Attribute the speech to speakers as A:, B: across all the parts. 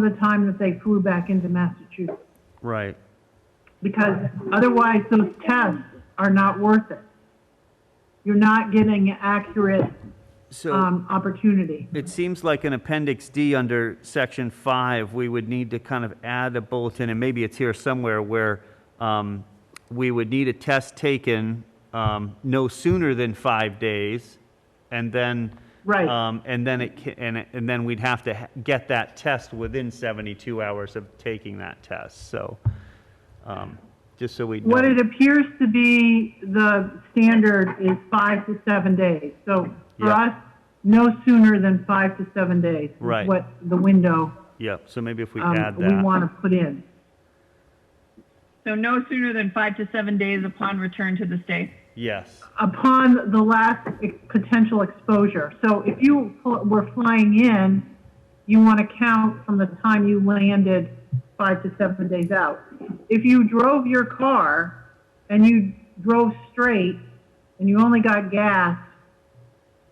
A: the time that they flew back into Massachusetts.
B: Right.
A: Because otherwise, those tests are not worth it. You're not getting accurate,
B: So
A: um, opportunity.
B: it seems like an Appendix D under Section 5, we would need to kind of add a bulletin, and maybe it's here somewhere, where um, we would need a test taken um, no sooner than five days, and then...
A: Right.
B: um, And then it, ca- and it- and then we'd have to ha- get that test within 72 hours of taking that test, so, um, just so we know.
A: What it appears to be the standard is five to seven days. So for
B: Yeah.
A: us, no sooner than five to seven days. is
B: Right.
A: What the window,
B: Yep, so maybe if we
A: um,
B: add
A: we
B: that.
A: want to put in.
C: So no sooner than five to seven days upon return to the state.
B: Yes,
A: upon the last ex- potential exposure. So if you fl- were flying in, you want to count from the time you landed five to seven days out. If you drove your car and you drove straight and you only got gas,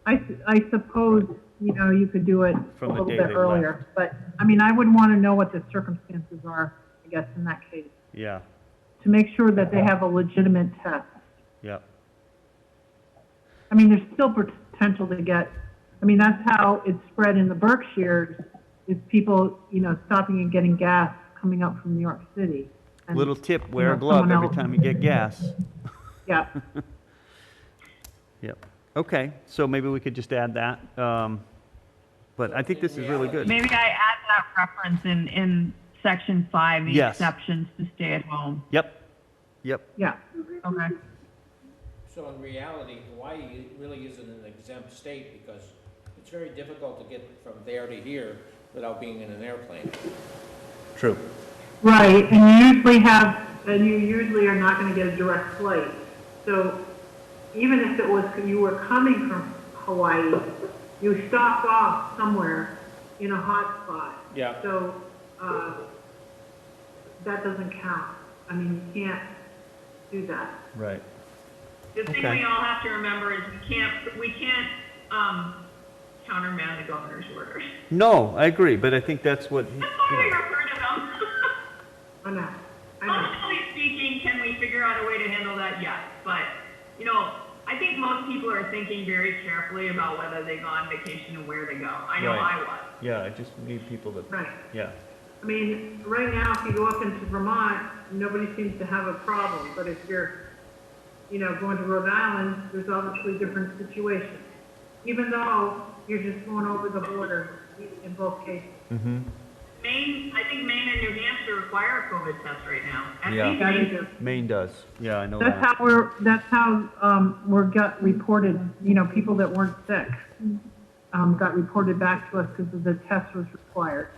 A: I, su- I suppose, you know, you could do it a
B: From the
A: little
B: day
A: bit
B: they
A: earlier. But, I mean, I would want to know what the circumstances are, I guess, in that case,
B: yeah,
A: to make sure that they have a legitimate test.
B: yep,
A: I mean, there's still potential to get, I mean, that's how it's spread in the Berkshires, is people, you know, stopping and getting gas coming up from New York City. And,
B: Little tip, wear a
A: know,
B: glove
A: someone
B: every
A: else-
B: time you get gas.
A: Yeah,
B: Yep. Okay, so maybe we could just add that. um, But I think this is really good.
C: Maybe I add that reference in, in section five, the
B: Yes.
C: exceptions to stay at home.
B: Yep, yep,
A: yeah.
C: Okay.
D: So in reality, Hawaii really isn't an exempt state because it's very difficult to get from there to here without being in an airplane. True.
A: Right, and you usually have, and you usually are not going to get a direct flight. So even if it was, you were coming from Hawaii, you stopped off somewhere in a hot spot.
D: Yeah.
A: So, uh, that doesn't count. I mean, you can't do that.
B: right.
C: The thing
B: Okay.
C: we all have to remember is we can't, we can't, um, countermand the governor's orders.
B: No, I agree, but I think that's what,
C: That's why we refer to them.
A: I know, I know.
C: Honestly speaking, can we figure out a way to handle that? Yes, but, you know, I think most people are thinking very carefully about whether they go on vacation and where they go. I know
B: Right.
C: I was.
B: yeah, I just need people to,
A: Right.
B: yeah,
A: I mean, right now, if you go up into Vermont, nobody seems to have a problem, but if you're, you know, going to Rhode Island, there's obviously a different situation. Even though you're just going over the border in both cases.
C: Maine, I think Maine and New Hampshire require a COVID test right now. I
B: Yeah.
C: think
A: That
C: Maine-
A: is a-
B: Maine does. Yeah, I know
A: That's
B: that.
A: how we're, that's how, um, we're got reported, you know, people that weren't sick, um, got reported back to us because the test was required.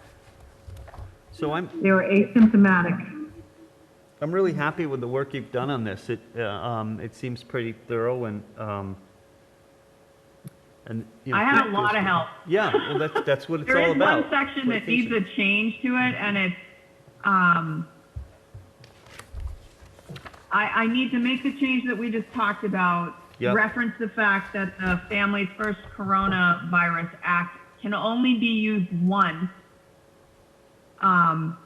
B: So I'm,
A: They were asymptomatic.
B: I'm really happy with the work you've done on this. It, uh, um, it seems pretty thorough and, um, and, you know.
C: I had a
B: good-
C: lot of help.
B: Yeah, well, that's, that's what it's
C: There
B: all
C: is one
B: about.
C: section that
B: Communication.
C: needs a change to it, and it's, um, I, I need to make the change that we just talked about.
B: Yep.
C: Reference the fact that the Families First Coronavirus Act can only be used once. Um,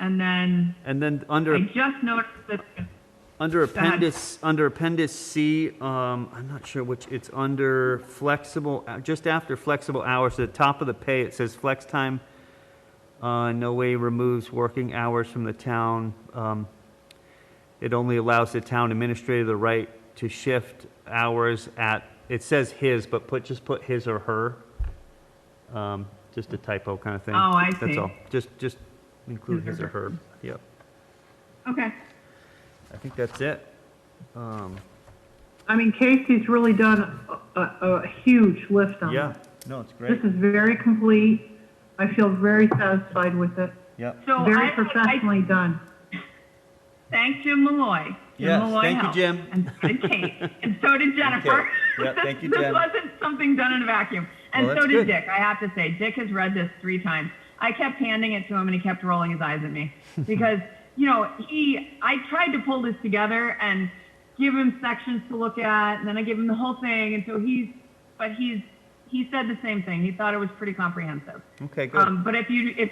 C: and then
B: And then under
C: I just noticed that
B: Under
C: ahead.
B: appendix, under appendix C, um, I'm not sure which, it's under flexible, uh, just after flexible hours, at the top of the pay, it says flex time, uh, in no way removes working hours from the town. Um, it only allows the town administrator the right to shift hours at, it says his, but put, just put his or her. Um, just a typo kind of thing.
C: Oh, I
B: That's
C: see.
B: all. Just, just include
C: His
B: his
C: or
B: or her. Yep.
C: Okay.
B: I think that's it. Um,
A: I mean, Casey's really done a, a, a huge lift on
B: Yeah,
A: it.
B: no, it's
A: This
B: great.
A: is very complete. I feel very satisfied with it.
B: Yep.
C: So
A: Very
C: I, I
A: professionally done.
C: thank Jim Malloy. Jim
B: Yes,
C: Malloy
B: thank you,
C: helped.
B: Jim.
C: And so did Kate. and so did Jennifer.
B: Kate. Yeah, thank you,
C: this
B: Jen.
C: wasn't something done in a vacuum. And
B: Well,
C: so
B: that's good.
C: did Dick. I have to say, Dick has read this three times. I kept handing it to him, and he kept rolling his eyes at me because you know he. I tried to pull this together and give him sections to look at, and then I give him the whole thing, and so he's. But he's he said the same thing. He thought it was pretty comprehensive.
B: Okay, good.
C: Um, but if you, if